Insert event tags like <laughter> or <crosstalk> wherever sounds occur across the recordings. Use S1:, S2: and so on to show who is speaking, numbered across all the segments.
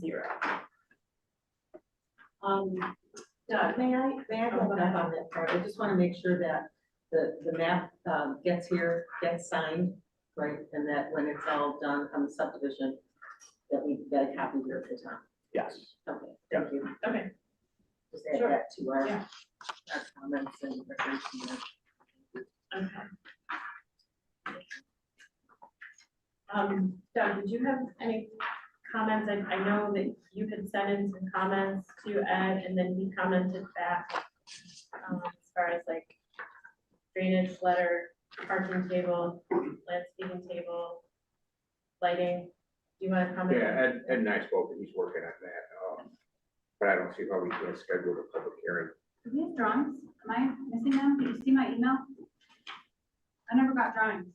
S1: zero. Um, Doug,
S2: May I, may I go back on that part? I just want to make sure that the, the map um, gets here, gets signed, right? And that when it's all done on the subdivision, that we get a copy here at the time.
S3: Yes.
S2: Okay, thank you.
S1: okay,
S2: Just add
S1: Sure.
S2: that to our,
S1: Yeah.
S2: our comments and recommendations.
S1: okay. Um, Doug, did you have any comments? I, I know that you had sent in some comments to Ed and then he commented back. Um, as far as like drainage letter, parking table, landscaping table, lighting. Do you want to comment?
S4: Yeah, Ed, Ed and I spoke, and he's working on that, um, but I don't see how we can schedule a public hearing.
S5: Do we have drawings? Am I missing them? Did you see my email? I never got drawings.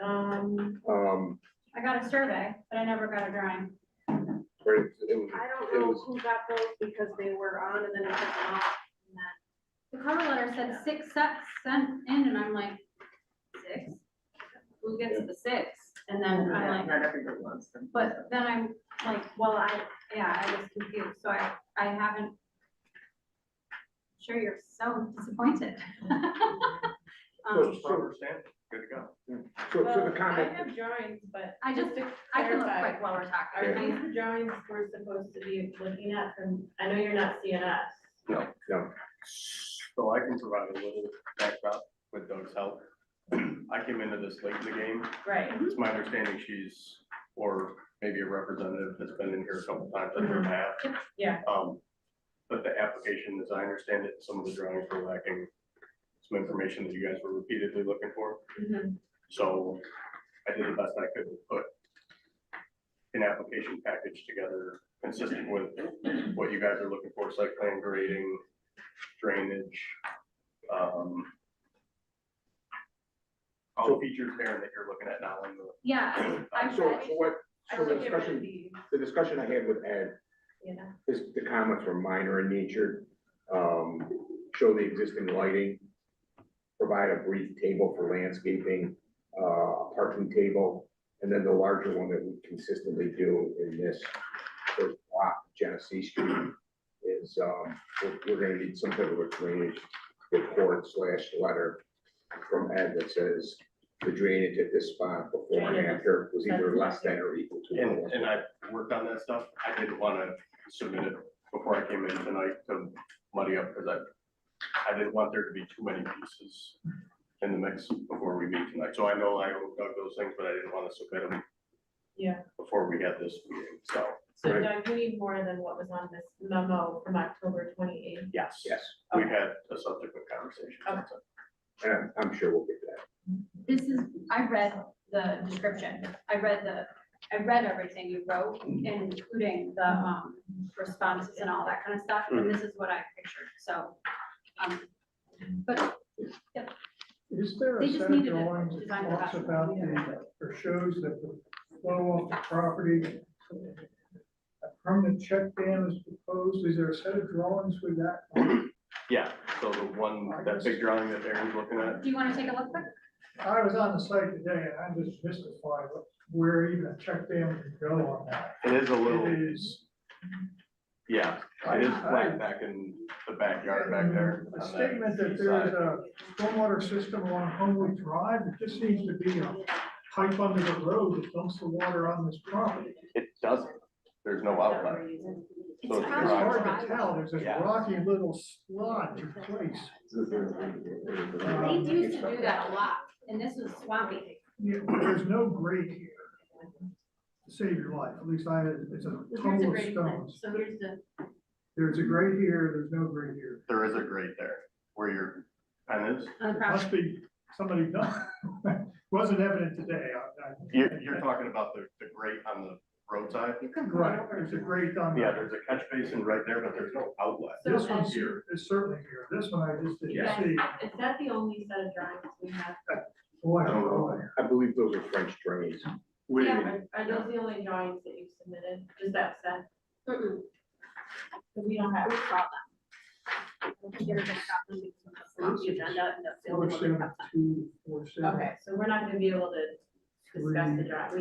S1: Um,
S4: Um,
S5: I got a survey, but I never got a drawing.
S4: but it it was,
S6: I don't
S4: it
S6: know
S4: was,
S6: who got those because they were on and then I took them off. and then-
S5: The cover letter said six sets sent in, and I'm like, six? Who gets the six? And then I'm like,
S2: Not everybody wants them.
S5: But then I'm like, well, I, yeah, I was confused, so I, I haven't. Sure, you're so disappointed. <laughs>
S4: So-
S5: Um,
S4: so-
S3: good to go.
S4: so, so
S1: well,
S4: the
S1: I
S4: comment,
S1: have drawings, but
S5: I just,
S1: to
S5: I can look
S1: clarify,
S5: quick while we're
S1: Are
S5: talking,
S1: these
S5: please.
S1: the drawings we're supposed to be looking at from, I know you're not CNS.
S4: no,
S3: So I can provide a little backdrop with Doug's help. I came into this late in the game.
S1: Right.
S3: It's my understanding she's, or maybe a representative that's been in here a couple times under her hat.
S1: Yeah.
S3: Um, but the application, as I understand it, some of the drawings were lacking some information that you guys were repeatedly looking for.
S1: Mm-hmm.
S3: So I did the best I could to put an application package together consistent with what you guys are looking for, site plan grading, drainage. um, All the features there that you're looking at now in the.
S5: Yeah, I-
S4: so, so what,
S1: I
S4: so
S1: will
S4: the
S1: get rid of
S4: discussion,
S1: these,
S4: the discussion I had with Ed
S1: yeah.
S4: This, the comments were minor in nature, um, show the existing lighting, provide a brief table for landscaping, uh, a parking table, and then the larger one that we consistently do in this first block, Genesee Street, is, um, we're, we're gonna need some type of a drainage report slash letter from Ed that says the drainage at this spot before and after was either less than or equal to. one.
S3: And, and I worked on that stuff. I didn't want to submit it before I came in tonight to muddy up because I, I didn't want there to be too many pieces in the mix before we meet tonight. So I know I owe Doug those things, but I didn't want to submit them.
S1: Yeah.
S3: Before we had this meeting, so,
S1: So
S4: Right.
S1: Doug, you need more than what was on this memo from October twenty-eighth.
S3: yes.
S4: Yes,
S3: We had a subsequent conversation.
S1: Okay.
S4: and I'm- I'm sure we'll get to that.
S5: this is, I read the description, I read the, I read everything you wrote, including the, um, responses and all that kind of stuff, and this is what I pictured, so. Um, but
S7: Is there a
S5: They just
S7: set of
S5: needed a
S7: drawings that
S5: design
S7: talks
S5: professional,
S7: about the, or shows that the flow off the property? A permanent check dam is proposed, is there a set of drawings with that?
S3: Yeah, so the one, that big drawing that Aaron's looking at,
S5: do you wanna take a look quick?
S7: I was on the site today and I'm just mystified what- where even a check dam would go on that.
S3: it is a little,
S7: It is.
S3: yeah, it is flat back in the backyard back there.
S7: A
S3: on that
S7: statement that
S3: east
S7: there
S3: side.
S7: is a stormwater system on Homewood Drive, it just seems to be a pipe under the road that dumps the water on this property.
S3: It doesn't. There's no outlet.
S5: It's
S3: So
S7: It's
S3: probably
S7: hard
S5: dry.
S7: to tell, there's this
S3: Yeah.
S7: rocky little sludge place.
S5: They used to do that a lot, and this was swampy.
S7: Yeah, There's no grate here to save your life, at least I, it's a
S1: So here's a
S7: tunnel of
S1: great plan,
S7: stones.
S1: so here's the,
S7: There's a grate here, there's no grate here.
S3: There is a grate there where your pen is.
S5: on the property.
S7: Must be somebody done, <laughs> wasn't evident today. I- I-
S3: You're, you're talking about the, the grate on the roadside?
S5: You could go
S7: Right,
S5: over.
S7: there's a grate on,
S3: Yeah,
S7: the-
S3: there's a catch basin right there, but there's no outlet.
S1: So
S7: this
S5: um,
S7: one's
S1: Ed-
S7: here, it's certainly here, this one I just didn't
S1: Yeah.
S7: see.
S1: is that the only set of drawings we have?
S7: Boy, oh,
S3: I don't know.
S7: boy.
S4: I believe those are French drains.
S3: Wait a
S5: Yeah.
S3: minute.
S1: Are are those the only drawings that you've submitted? Is that set?
S5: Mm-mm,
S1: Because we don't have.
S5: We saw them. The computer just got them because of the swampy agenda and the
S7: Four,
S5: field and all that
S7: seven,
S5: stuff.
S7: two, four, seven.
S1: Okay, so we're not gonna be able to discuss the drawing.